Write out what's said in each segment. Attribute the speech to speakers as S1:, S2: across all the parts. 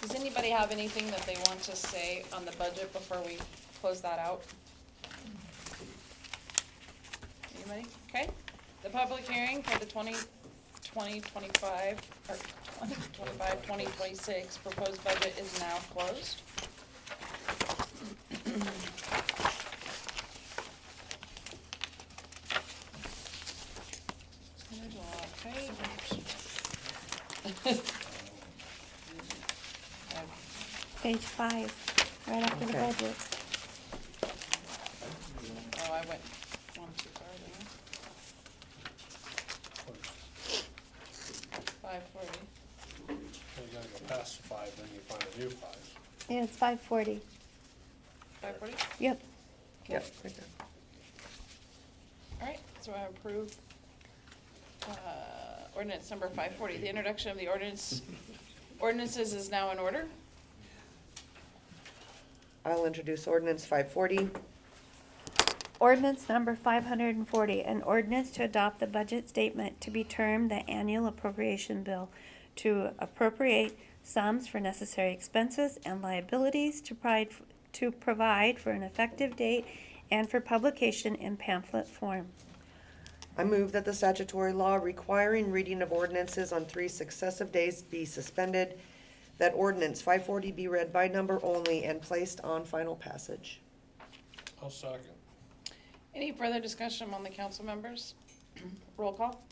S1: Does anybody have anything that they want to say on the budget before we close that out? Anybody? Okay. The public hearing for the 2025 or 2025, 2026 proposed budget is now closed. There's a lot of papers.
S2: Page five, right after the
S3: Okay.
S2: budget.
S1: Oh, I went one too far there. Five forty.
S4: You gotta go past the five, then you find a new five.
S2: Yeah, it's five forty.
S1: Five forty?
S2: Yep.
S3: Yeah, right there.
S1: Alright, so I approve, uh, ordinance number five forty, the introduction of the ordinance, ordinances is now in order.
S3: I'll introduce ordinance five forty.
S2: Ordinance number five hundred and forty, an ordinance to adopt the budget statement to be termed the annual appropriation bill to appropriate sums for necessary expenses and liabilities to provide, to provide for an effective date and for publication in pamphlet form.
S3: I move that the statutory law requiring reading of ordinances on three successive days be suspended, that ordinance five forty be read by number only and placed on final passage.
S4: I'll second.
S1: Any further discussion among the council members? Roll call?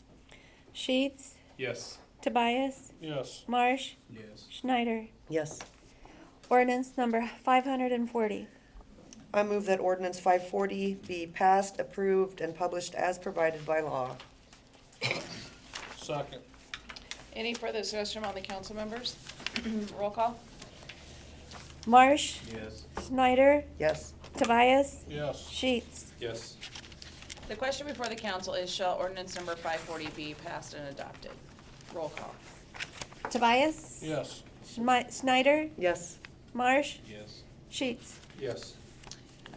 S2: Sheets,
S5: Yes.
S2: Tobias,
S4: Yes,
S2: Marsh,
S5: Yes.
S2: Schneider.
S3: Yes.
S2: Ordinance number five hundred and forty.
S3: I move that ordinance five forty be passed, approved, and published as provided by law.
S4: second.
S1: Any further discussion among the council members? Roll call?
S2: Marsh,
S5: Yes.
S2: Snyder,
S3: Yes.
S2: Tobias,
S4: Yes,
S2: Sheets.
S5: Yes.
S1: The question before the council is, shall ordinance number five forty be passed and adopted? Roll call.
S2: Tobias?
S4: yes,
S2: Schmi- Snyder,
S3: Yes.
S2: Marsh,
S5: Yes.
S2: Sheets.
S5: Yes.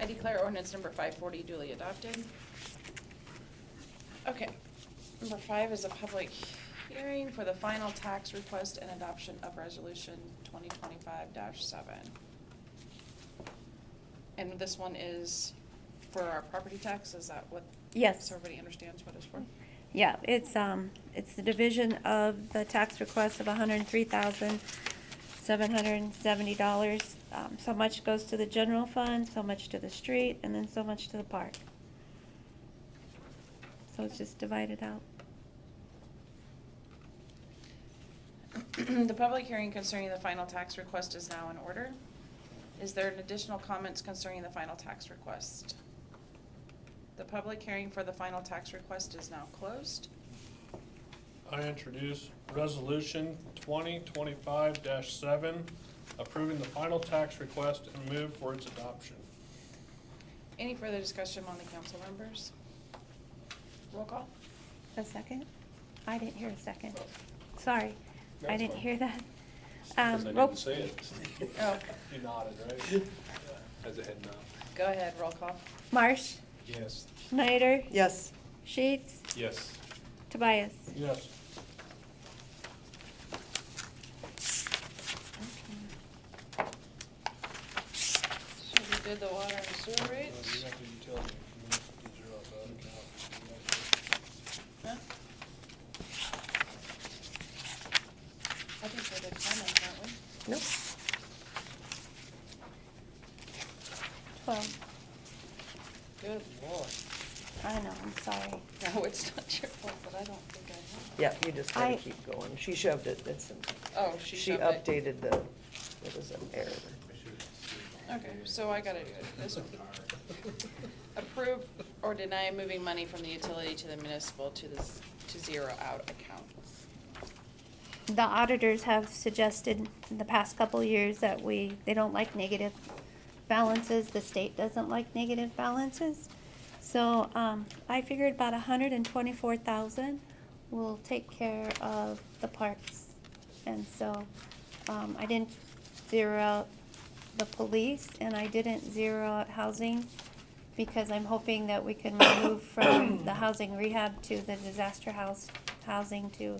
S1: I declare ordinance number five forty duly adopted. Okay, number five is a public hearing for the final tax request and adoption of resolution twenty twenty-five seven. And this one is for our property tax, is that what?
S2: Yes.
S1: So everybody understands what it's for?
S2: Yeah, it's, um, it's the division of the tax request of hundred and three thousand, seven hundred and seventy dollars. Um, so much goes to the general fund, so much to the street, and then so much to the park. So it's just divided out.
S1: The public hearing concerning the final tax request is now in order. Is there an additional comments concerning the final tax request? The public hearing for the final tax request is now closed.
S4: I introduce resolution twenty twenty-five seven, approving the final tax request and move for its adoption.
S1: Any further discussion among the council members? Roll call?
S2: A second? I didn't hear a second. Sorry, I
S5: That's
S2: didn't
S5: fine.
S2: hear that.
S5: Because I
S2: Um, roll-
S5: didn't say it.
S1: Oh,
S4: You nodded, right?
S5: As a head nod.
S1: go ahead, roll call.
S2: Marsh,
S5: Yes.
S2: Snyder,
S3: Yes.
S2: Sheets,
S5: Yes.
S2: Tobias.
S4: Yes,
S1: So we did the water and sewer
S4: Uh,
S1: rates. Huh? I think we did comments, aren't we?
S3: Nope.
S2: Twelve.
S1: Good lord.
S2: I know, I'm sorry.
S1: No, it's not your fault, but I don't think I
S3: Yeah, you just gotta
S2: I-
S3: keep going. She shoved it. It's,
S1: have. Oh, she
S3: she
S1: shoved it.
S3: updated the, it was an error.
S1: Okay, so I gotta do it this way. Approve or deny moving money from the utility to the municipal to the, z- to zero out account.
S2: The auditors have suggested in the past couple years that we, they don't like negative balances. The state doesn't like negative balances. So, um, I figured about a hundred and twenty-four thousand will take care of the parks. And so, um, I didn't zero out the police and I didn't zero out housing because I'm hoping that we can move from the housing rehab to the disaster house, housing to